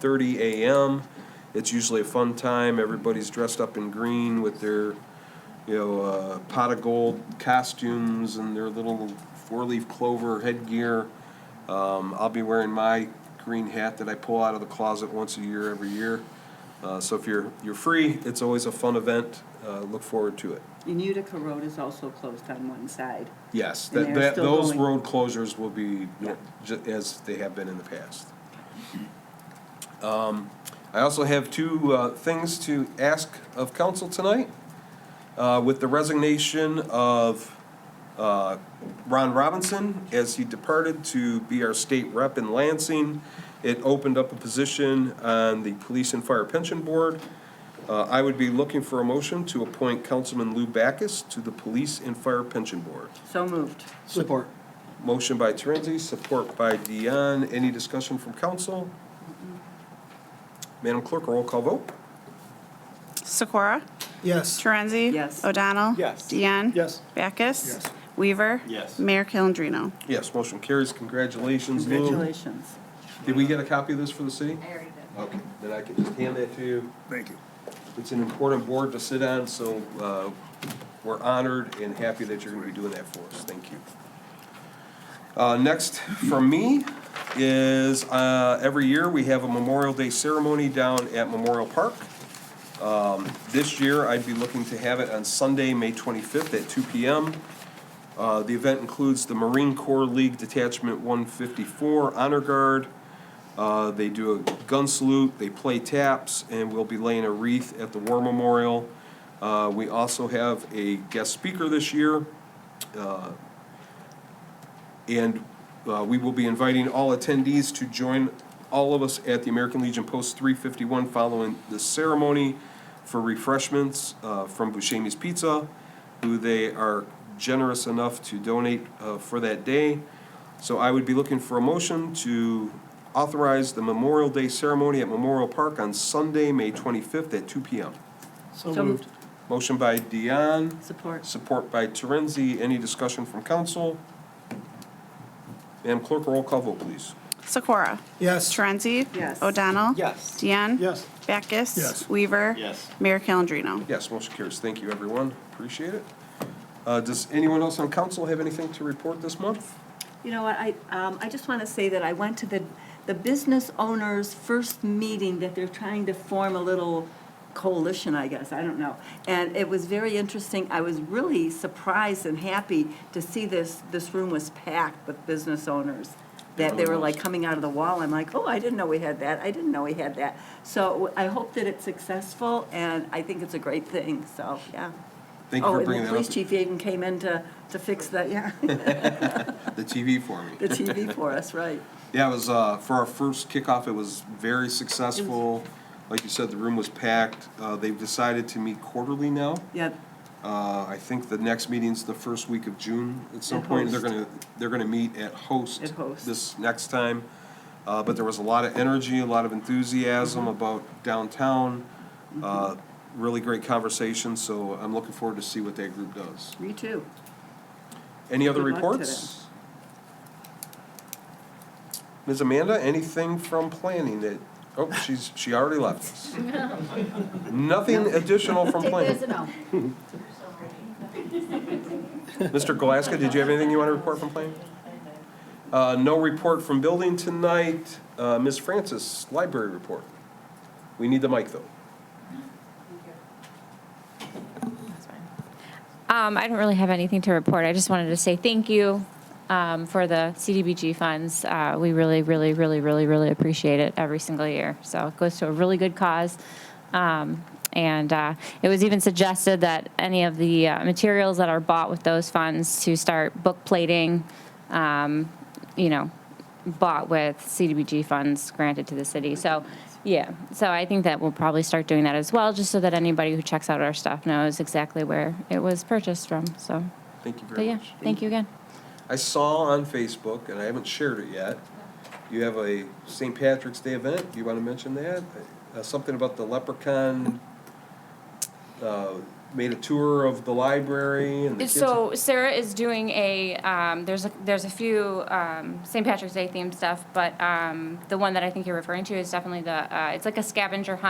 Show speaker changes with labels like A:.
A: thirty a.m. It's usually a fun time. Everybody's dressed up in green with their, you know, uh, pot of gold costumes and their little four-leaf clover headgear. Um, I'll be wearing my green hat that I pull out of the closet once a year every year. Uh, so if you're you're free, it's always a fun event. Uh, look forward to it.
B: And Utica Road is also closed on one side.
A: Yes,
B: And
A: that,
B: they're
A: that,
B: still
A: those
B: going.
A: road closures will be,
B: Yeah.
A: ju- as they have been in the past. Um, I also have two, uh, things to ask of council tonight. Uh, with the resignation of, uh, Ron Robinson as he departed to be our state rep in Lansing, it opened up a position on the Police and Fire Pension Board. Uh, I would be looking for a motion to appoint Councilman Lou Backus to the Police and Fire Pension Board.
B: So moved.
C: Support.
A: Motion by Terenzzi, support by Dion. Any discussion from council? Madam Clerk, roll call vote.
D: Sikora?
C: Yes.
D: Torenzi?
B: Yes.
D: O'Donnell?
C: Yes.
D: Deanne?
C: Yes.
D: Backus?
C: Yes.
D: Weaver?
C: Yes.
D: Mayor Calendino?
A: Yes, motion carries. Congratulations, Lou.
B: Congratulations.
A: Did we get a copy of this for the city? I already did. Okay, then I can just hand that to you.
C: Thank you.
A: It's an important board to sit on, so uh, we're honored and happy that you're going to be doing that for us. Thank you. Uh, Next from me is, uh, every year, we have a Memorial Day ceremony down at Memorial Park. Um, This year, I'd be looking to have it on Sunday, May 25th at 2 PM. Uh, The event includes the Marine Corps League Detachment 154 Honor Guard, uh, They do a gun salute, they play taps, and we'll be laying a wreath at the War Memorial. Uh, We also have a guest speaker this year. uh, And uh, we will be inviting all attendees to join all of us at the American Legion Post 351 following the ceremony for refreshments uh, from Buscemi's Pizza, who they are generous enough to donate uh, for that day. So I would be looking for a motion to authorize the Memorial Day ceremony at Memorial Park on Sunday, May 25th at 2 PM.
B: So moved.
A: Motion by Dion,
B: Support.
A: support by Terenzi. Any discussion from council? Madam Clerk, roll call vote, please.
D: Sikora?
C: Yes.
D: Torenzi?
B: Yes.
D: O'Donnell?
C: Yes.
D: Deanne?
C: Yes.
D: Backus?
C: Yes.
D: Weaver?
C: Yes.
D: Mayor Calendino?
A: Yes, motion carries. Thank you, everyone. Appreciate it. Uh, Does anyone else on council have anything to report this month?
E: You know what, I, um, I just want to say that I went to the, the business owners' first meeting that they're trying to form a little coalition, I guess, I don't know. And it was very interesting. I was really surprised and happy to see this, this room was packed with business owners. That they were like coming out of the wall. I'm like, oh, I didn't know we had that. I didn't know we had that. So I hope that it's successful and I think it's a great thing, so, yeah.
A: Thank you
E: Oh,
A: for
E: and
A: bringing
E: the
A: that
E: police
A: up,
E: chief even came in to, to fix the, yeah,
A: the TV for me.
E: the TV for us, right.
A: Yeah, it was, uh, for our first kickoff, it was very successful. Like you said, the room was packed. Uh, they've decided to meet quarterly now.
E: Yeah,
A: Uh, I think the next meeting's the first week of June at some
E: At
A: point. They're
E: Host.
A: gonna, they're gonna meet at Host.
E: At Host.
A: This next time. Uh, but there was a lot of energy, a lot of
E: Mm-hmm.
A: enthusiasm about downtown. Uh, really great conversation, so I'm looking forward to see what that group does.
E: me too.
A: Any other
E: Good luck to
A: reports? Ms. Amanda, anything from planning that, oh, she's, she already left us. Nothing additional from planning. Mr. Glasgow, did you have anything you want to report from planning? Uh, no report from building tonight. Uh, Ms. Francis, library report. We need the mic, though.
F: Um, I don't really have anything to report. I just wanted to say thank you um, for the CDBG funds. Uh, we really, really, really, really, really appreciate it every single year. So it goes to a really good cause. Um, and uh, it was even suggested that any of the uh, materials that are bought with those funds to start book plating, um, you know, bought with CDBG funds granted to the city. So, yeah, so I think that we'll probably start doing that as well, just so that anybody who checks out our stuff knows exactly where it was purchased from, so.
A: Thank you
F: But
A: very
F: Oh, yeah,
A: much.
F: thank you again.
A: I saw on Facebook, and I haven't shared it yet, you have a St. Patrick's Day event. Do you want to mention that? Uh, something about the leprechaun, uh, made a tour of the library and the kids.
F: So Sarah is doing a, um, there's a, there's a few, um, St. Patrick's Day themed stuff, but, um, the one that I think you're referring to is definitely the, uh, it's like a scavenger hunt